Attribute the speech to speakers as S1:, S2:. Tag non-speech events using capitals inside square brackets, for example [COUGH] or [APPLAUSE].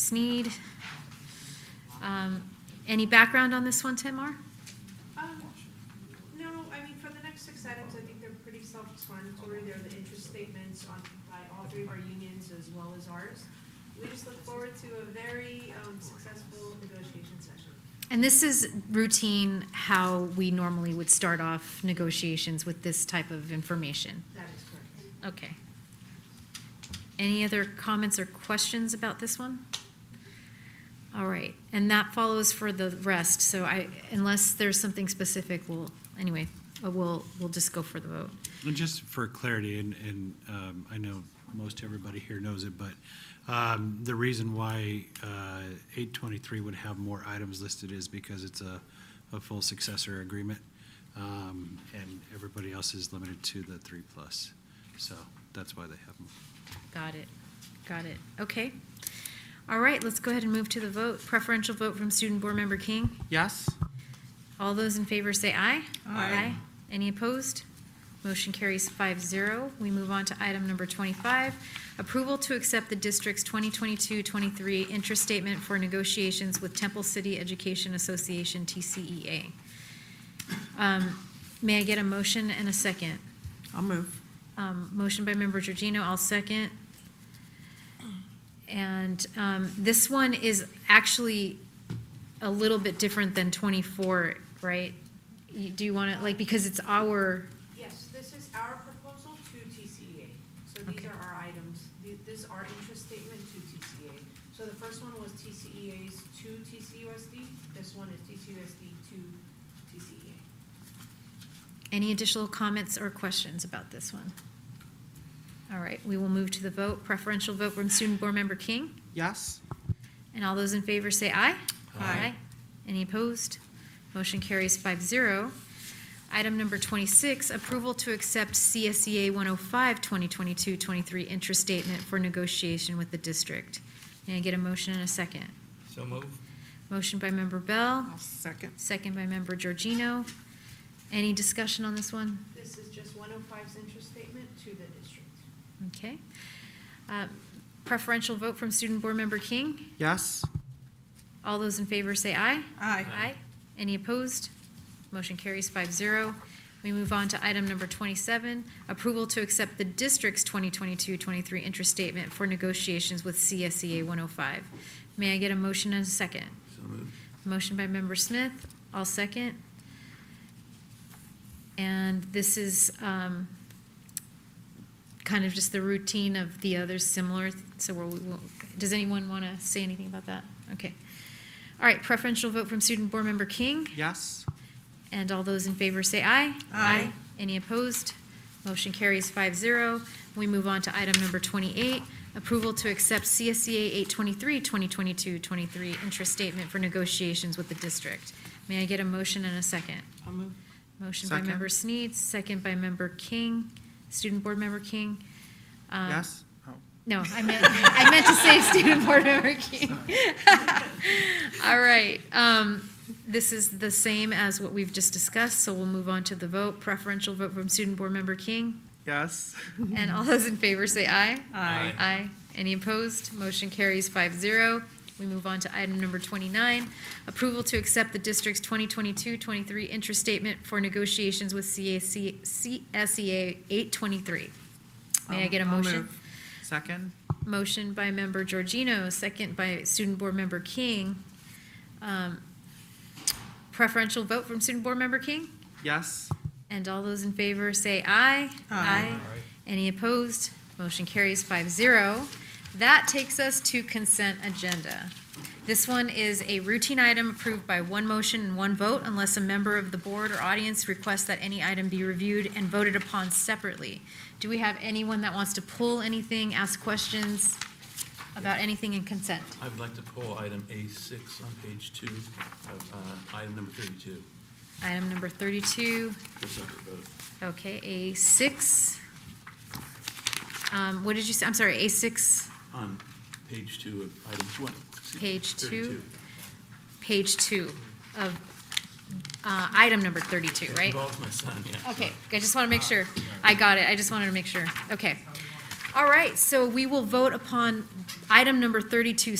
S1: Sneed. Um, Any background on this one, Timar?
S2: Um, No, I mean, for the next six items, I think they're pretty self-explanatory. They're the interest statements on, by all three of our unions as well as ours. We just look forward to a very um, successful negotiation session.
S1: And this is routine, how we normally would start off negotiations with this type of information.
S2: That is correct.
S1: Okay. Any other comments or questions about this one? All right, and that follows for the rest, so I, unless there's something specific, we'll, anyway, uh, we'll, we'll just go for the vote.
S3: And just for clarity, and, and um, I know most everybody here knows it, but um, the reason why uh, 823 would have more items listed is because it's a, a full successor agreement, um, and everybody else is limited to the three plus. So that's why they have them.
S1: Got it, got it, okay. All right, let's go ahead and move to the vote. Preferential vote from Student Board Member King.
S4: Yes?
S1: All those in favor say aye.
S4: Aye.
S1: Any opposed? Motion carries 5-0. We move on to item number twenty-five, approval to accept the district's 2022-23 interest statement for negotiations with Temple City Education Association, TCEA. Um, May I get a motion and a second?
S4: I'll move.
S1: Um, Motion by member Georgino, I'll second. And um, this one is actually a little bit different than 24, right? You- Do you want to, like, because it's our,
S2: Yes, this is our proposal to TCEA. So these
S1: Okay.
S2: are our items. Th- This is our interest statement to TCEA. So the first one was TCEA's to TCUSD. This one is TCUSD to E TCEA.
S1: any additional comments or questions about this one? All right, we will move to the vote. Preferential vote from Student Board Member King.
S4: Yes?
S1: And all those in favor say aye.
S4: Aye.
S1: Any opposed? Motion carries 5-0. Item number twenty-six, approval to accept E CSEA 105 2022-23 interest statement for negotiation with the district. May I get a motion and a second?
S5: So move.
S1: Motion by member Bell,
S4: I'll second.
S1: second by member Georgino. Any discussion on this one?
S2: This is just 105's interest statement to the district.
S1: Okay. Uh, Preferential vote from student board member King.
S4: Yes?
S1: All those in favor say aye.
S4: Aye.
S1: Aye. Any opposed? Motion carries 5-0. We move on to item number twenty-seven, approval to accept the district's 2022-23 interest statement for negotiations with CSEA one oh five. May I get a motion and a second?
S5: So move.
S1: Motion by member Smith, I'll second. And this is, um, kind of just the routine of the others similar, so we'll, we'll- does anyone want to say anything about that? Okay. All right, preferential vote from student board member King,
S4: Yes?
S1: and all those in favor say aye.
S4: Aye.
S1: Any opposed? Motion carries 5-0. We move on to item number twenty-eight, approval to accept E CSCA 823-2022-23 interest statement for negotiations with the district. May I get a motion and a second?
S4: I'll move.
S1: Motion by
S4: Second.
S1: member Sneed, second by member King, student board member King. Um,
S4: Yes? Oh.
S1: No, I meant, I meant to say [LAUGHS] student board member King. [LAUGHS] All right, um, this is the same as what we've just discussed, so we'll move on to the vote. Preferential vote from student board member King.
S4: Yes?
S1: And all those in favor say aye.
S4: Aye.
S1: Aye. Any opposed? Motion carries 5-0. We move on to item number twenty-nine, approval to accept the district's 2022-23 interest statement for negotiations with CAC, CSEA E eight twenty-three. May I
S4: Um,
S1: get a
S4: I'll
S1: motion?
S4: move. Second?
S1: Motion by member Georgino, second by student board member King. Um, Preferential vote from student board member King?
S4: Yes?
S1: And all those in favor say aye.
S4: Aye.
S1: Any opposed? Motion carries 5-0. That takes us to consent agenda. This one is a routine item approved by one motion and one vote unless a member of the board or audience requests that any item be reviewed and voted upon separately. Do we have anyone that wants to pull anything, ask questions about anything in consent?
S5: I'd like to pull item A6 on page two, of, uh, item number 32.
S1: Item number thirty-two,
S5: for separate vote.
S1: Okay, A six. Um, what did you say? I'm sorry, A six,
S5: On page two of item 20. excuse me,
S1: Page two.
S5: 32.
S1: page two of, uh, item number thirty-two,
S5: It
S1: right?
S5: Involves my son, yeah.
S1: Okay, I just want to make sure. I got it, I just wanted to make sure. Okay. All right, so we will vote upon item number thirty-two